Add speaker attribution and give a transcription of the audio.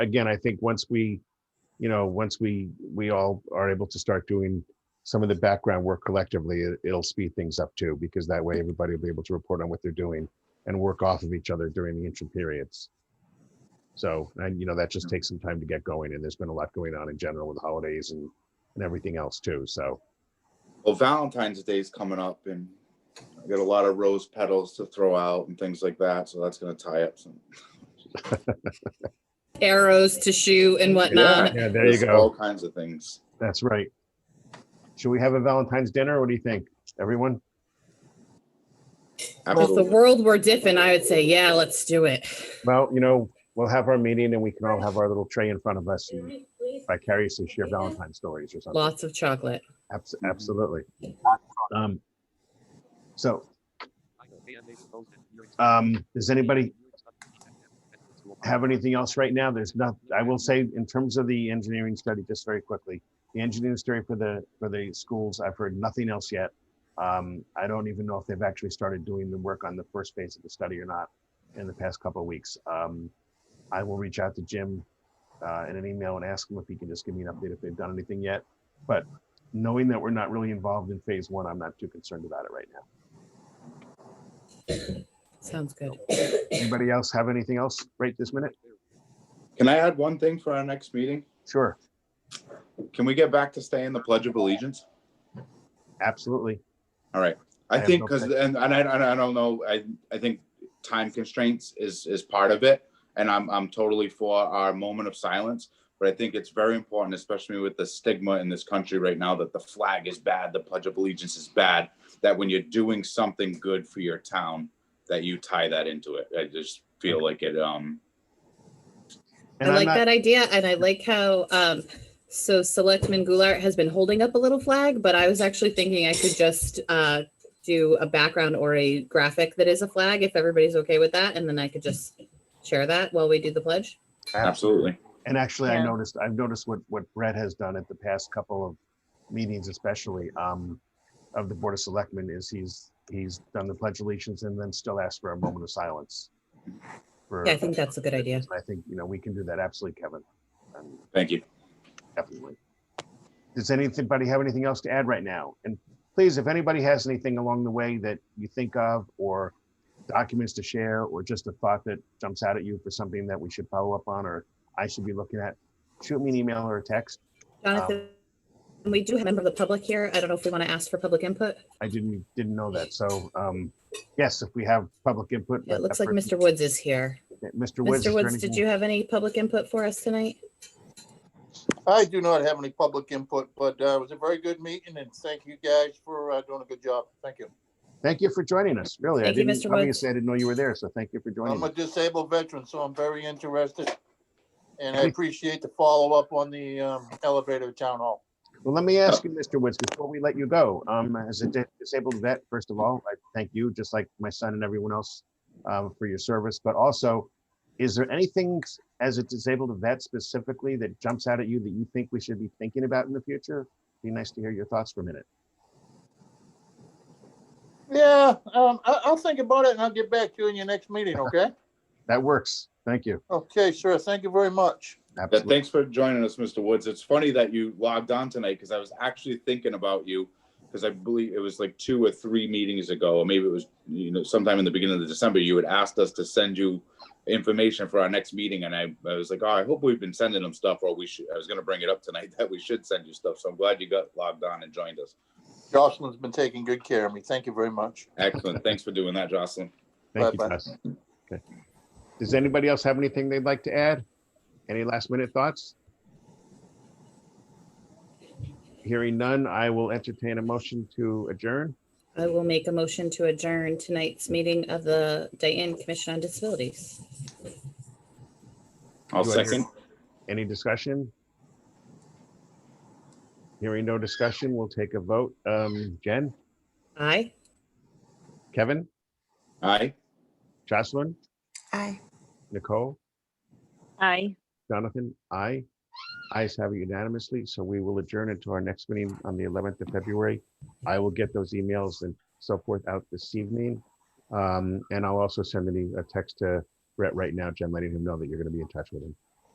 Speaker 1: again, I think once we, you know, once we, we all are able to start doing some of the background work collectively, it- it'll speed things up too, because that way everybody will be able to report on what they're doing and work off of each other during the interim periods. So, and you know, that just takes some time to get going and there's been a lot going on in general with the holidays and, and everything else too. So,
Speaker 2: Well, Valentine's Day is coming up and I got a lot of rose petals to throw out and things like that. So that's going to tie up some.
Speaker 3: arrows to shoot and whatnot.
Speaker 1: yeah, there you
Speaker 2: There's
Speaker 1: go.
Speaker 2: All kinds of things.
Speaker 1: That's right. Should we have a Valentine's dinner? What do you think, everyone?
Speaker 3: Well, if the
Speaker 2: Absolutely.
Speaker 3: world were different, I would say, yeah, let's do it.
Speaker 1: Well, you know, we'll have our meeting and we can all have our little tray in front of us and vicariously share Valentine's stories or something.
Speaker 3: Lots of chocolate.
Speaker 1: Abs- Absolutely. Um, So, um, does anybody have anything else right now? There's not, I will say in terms of the engineering study, just very quickly, the engineering study for the, for the schools, I've heard nothing else yet. Um, I don't even know if they've actually started doing the work on the first phase of the study or not in the past couple of weeks. Um, I will reach out to Jim uh, in an email and ask him if he can just give me an update if they've done anything yet. But knowing that we're not really involved in phase one, I'm not too concerned about it right now.
Speaker 3: Sounds good.
Speaker 1: Anybody else have anything else right this minute?
Speaker 2: Can I add one thing for our next meeting?
Speaker 1: Sure,
Speaker 2: Can we get back to staying the Pledge of Allegiance?
Speaker 1: absolutely.
Speaker 2: All right. I
Speaker 1: I have
Speaker 2: think
Speaker 1: no
Speaker 2: because
Speaker 1: pledge.
Speaker 2: and, and I and I don't know. I I think time constraints is is part of it, and I'm I'm totally for our moment of silence. But I think it's very important, especially with the stigma in this country right now, that the flag is bad, the Pledge of Allegiance is bad. That when you're doing something good for your town, that you tie that into it. I just feel like it. Um,
Speaker 1: And
Speaker 3: I
Speaker 1: I'm
Speaker 3: like
Speaker 1: not-
Speaker 3: that idea, and I like how, um, so Selectman Goulart has been holding up a little flag, but I was actually thinking I could just, uh, do a background or a graphic that is a flag, if everybody's okay with that, and then I could just share that while we do the pledge.
Speaker 2: absolutely.
Speaker 1: And actually, I
Speaker 3: Yeah.
Speaker 1: noticed, I've noticed what, what Brett has done at the past couple of meetings especially, um, of the Board of Selectmen is he's, he's done the pledge allegiance and then still asked for a moment of silence. for-
Speaker 3: Yeah, I think that's a good idea.
Speaker 1: I think, you know, we can do that. Absolutely, Kevin. Um,
Speaker 2: Thank you.
Speaker 1: Definitely. Does anybody have anything else to add right now? And please, if anybody has anything along the way that you think of or documents to share or just a thought that jumps out at you for something that we should follow up on or I should be looking at, shoot me an email or a text.
Speaker 3: Jonathan,
Speaker 1: Um,
Speaker 3: we do have a member of the public here. I don't know if we want to ask for public input.
Speaker 1: I didn't, didn't know that. So, um, yes, if we have public input.
Speaker 3: It
Speaker 1: let
Speaker 3: looks
Speaker 1: that
Speaker 3: like
Speaker 1: person-
Speaker 3: Mr. Woods is here.
Speaker 1: Mr. Woods.
Speaker 3: Mr.
Speaker 1: is there
Speaker 3: Woods, did
Speaker 1: anything-
Speaker 3: you have any public input for us tonight?
Speaker 4: I do not have any public input, but uh, it was a very good meeting and thank you guys for uh, doing a good job. Thank you.
Speaker 1: Thank you for joining us. Really, I
Speaker 3: Thank you,
Speaker 1: didn't,
Speaker 3: Mr. Woods.
Speaker 1: obviously I didn't know you were there. So thank you for joining
Speaker 4: I'm a
Speaker 1: us.
Speaker 4: disabled veteran, so I'm very interested. And I appreciate the follow-up on the um, elevator at town hall.
Speaker 1: Well, let me ask you, Mr. Woods, before we let you go, um, as a di- disabled vet, first of all, I thank you, just like my son and everyone else, um, for your service, but also, is there anything s- as a disabled vet specifically that jumps out at you that you think we should be thinking about in the future? Be nice to hear your thoughts for a minute.
Speaker 4: Yeah, um, I, I'll think about it and I'll get back to you in your next meeting, okay?
Speaker 1: That works. Thank you.
Speaker 4: Okay, sure. Thank you very much.
Speaker 2: Yeah,
Speaker 1: Absolutely.
Speaker 2: thanks for joining us, Mr. Woods. It's funny that you logged on tonight because I was actually thinking about you because I believe it was like two or three meetings ago, or maybe it was you know sometime in the beginning of December. You had asked us to send you information for our next meeting, and I, I was like, oh, I hope we've been sending them stuff, or we should. I was going to bring it up tonight that we should send you stuff. So I'm glad you got logged on and joined us.
Speaker 4: Jocelyn's been taking good care of me. Thank you very much.
Speaker 2: Excellent. Thanks for doing that, Jocelyn.
Speaker 1: Thank you,
Speaker 4: Bye-bye.
Speaker 1: Tess. Okay. Does anybody else have anything they'd like to add? Any last minute thoughts? Hearing none, I will entertain a motion to adjourn.
Speaker 3: I will make a motion to adjourn tonight's meeting of the Dayton Commission on Disabilities.
Speaker 2: I'll
Speaker 1: Do I hear-
Speaker 2: second.
Speaker 1: Any discussion? Hearing no discussion, we'll take a vote. Um, Jen,
Speaker 3: Aye.
Speaker 1: Kevin,
Speaker 2: Aye.
Speaker 1: Jocelyn,
Speaker 5: Aye.
Speaker 1: Nicole,
Speaker 5: Aye.
Speaker 1: Jonathan, I. Ayes have it unanimously, so we will adjourn until our next meeting on the eleventh of February. I will get those emails and so forth out this evening. Um, and I'll also send an e- a text to Brett right now, Jen, letting him know that you're gonna be in touch with him.